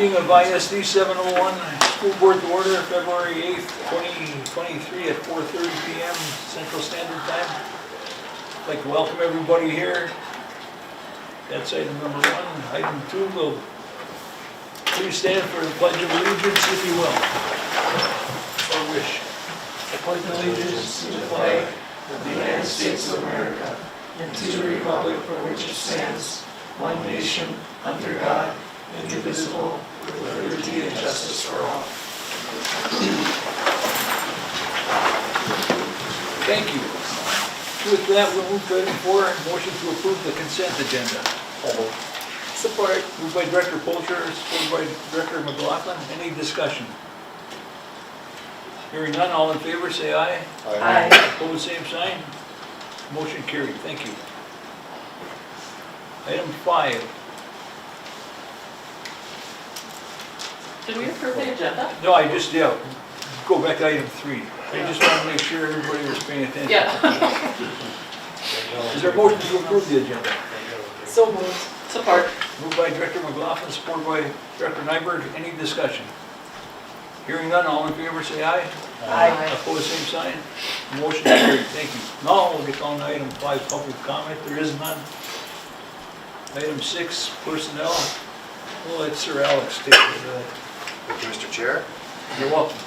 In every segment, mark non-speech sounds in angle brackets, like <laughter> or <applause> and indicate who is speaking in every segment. Speaker 1: ISD 701, School Board to Order, February 8th, 2023 at 4:30 PM Central Standard Time. I'd Like to welcome everybody here. That's item number one. Item two, will please stand for the Pledge of Allegiance if you will. Or wish. I pledge allegiance to the flag of the United States of America and to the republic for which it stands, one nation, under God, indivisible, with liberty and justice for all. Thank you. With that, we'll move to item four, motion to approve the consent agenda. Support. Moved by Director Polter, supported by Director McLaughlin. Any discussion? Hearing none, all in favor, say aye.
Speaker 2: Aye.
Speaker 1: Hold the same sign. Motion carried, thank you. Item five,
Speaker 2: Did we approve the agenda?
Speaker 1: no, I just, yeah, go back to item three. I just want to make sure everybody was paying attention.
Speaker 2: Yeah.
Speaker 1: Is there a motion to approve the agenda?
Speaker 2: <laughs> So moved. Support.
Speaker 1: Moved by Director McLaughlin, supported by Director Nyberg. Any discussion? Hearing none, all in favor, say aye.
Speaker 2: Aye.
Speaker 1: Opposed, same sign. Motion carried, thank you. Now we'll get on to item five, public comment, there is none. Item six, personnel. We'll let Sir Alex take it. Uh,
Speaker 3: Thank you, Mr. Chair.
Speaker 1: You're welcome.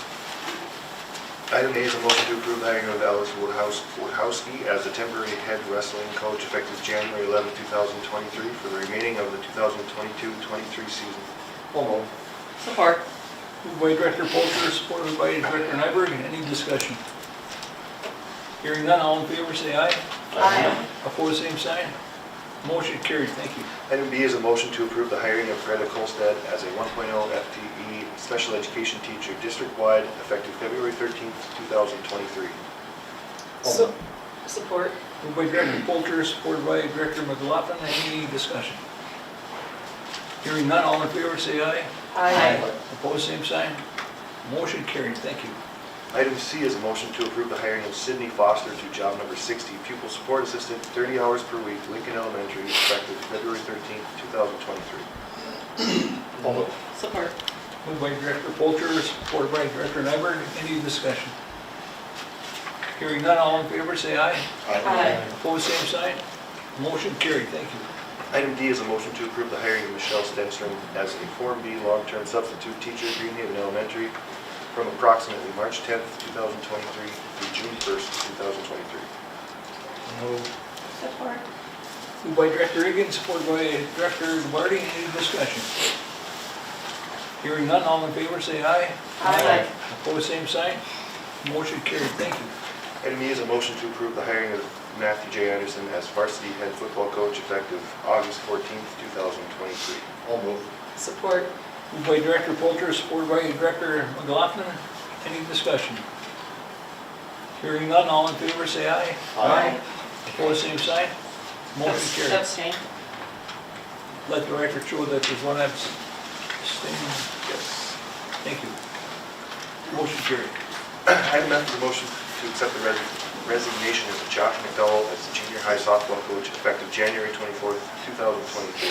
Speaker 3: Item A is a motion to approve hiring of Alice Woodhouse, Woodhowski as a temporary head wrestling coach effective January 11, 2023 for the remaining of the 2022-23 season.
Speaker 2: Support.
Speaker 1: Moved by Director Polter, supported by Director Nyberg. Any discussion? Hearing none, all in favor, say aye.
Speaker 2: Aye.
Speaker 1: Opposed, same sign. Motion carried, thank you.
Speaker 3: Item B is a motion to approve the hiring of Greta Colstead as a 1.0 FTE E special education teacher district-wide effective February 13, 2023.
Speaker 2: So- Support.
Speaker 1: Moved by Director Polter, supported by Director McLaughlin. Any discussion? Hearing none, all in favor, say aye.
Speaker 2: Aye.
Speaker 1: Opposed, same sign. Motion carried, thank you.
Speaker 3: Item C is a motion to approve the hiring of Sydney Foster to job number 60, pupil support assistant, 30 hours per week, Lincoln Elementary, effective February 13, 2023.
Speaker 2: Support.
Speaker 1: Moved by Director Polter, supported by Director Nyberg. Any discussion? Hearing none, all in favor, say aye.
Speaker 2: Aye.
Speaker 1: Opposed, same sign. Motion carried, thank you.
Speaker 3: Item D is a motion to approve the hiring of Michelle Stenstrom as a Form B long-term substitute teacher, at Green Haven Elementary, from approximately March 10, 2023 through June 1, 2023.
Speaker 2: Support.
Speaker 1: Moved by Director Egan, supported by Director Duarte. Any discussion? Hearing none, all in favor, say aye.
Speaker 2: Aye.
Speaker 1: Opposed, same sign. Motion carried, thank you.
Speaker 3: Item E is a motion to approve the hiring of Matthew J. Anderson as varsity head football coach effective August 14, 2023.
Speaker 2: Support.
Speaker 1: Moved by Director Polter, supported by Director McLaughlin. Any discussion? Hearing none, all in favor, say aye.
Speaker 2: Aye.
Speaker 1: Opposed, same sign. Motion carried.
Speaker 2: Abstain.
Speaker 1: Let the record show that there's one abstaining.
Speaker 3: Yes.
Speaker 1: Thank you. Motion carried.
Speaker 3: <clears throat> Item F is a motion to accept the res- resignation of Josh McDowell as the junior high softball coach effective January 24, 2023.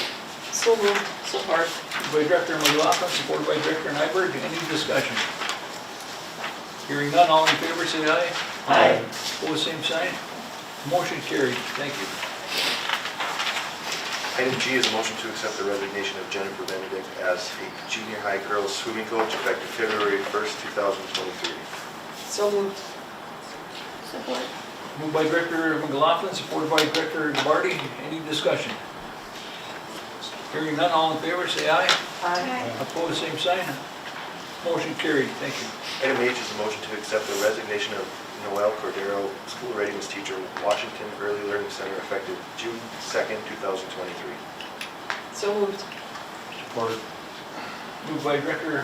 Speaker 2: So moved. Support.
Speaker 1: Moved by Director McLaughlin, supported by Director Nyberg. Any discussion? Hearing none, all in favor, say aye.
Speaker 2: Aye.
Speaker 1: Opposed, same sign. Motion carried. Thank you.
Speaker 3: Item G is a motion to accept the resignation of Jennifer Benedict as a junior high girls swimming coach effective February 1st, 2023.
Speaker 2: So moved. Support.
Speaker 1: Moved by Director McLaughlin, supported by Director Duarte. Any discussion? Hearing none, all in favor, say aye.
Speaker 2: Aye.
Speaker 1: Opposed, same sign. Motion carried. Thank you.
Speaker 3: Item H is a motion to accept the resignation of Noel Cordero, school readiness teacher, Washington Early Learning Center effective June 2nd, 2023.
Speaker 2: So moved.
Speaker 1: Moved by Director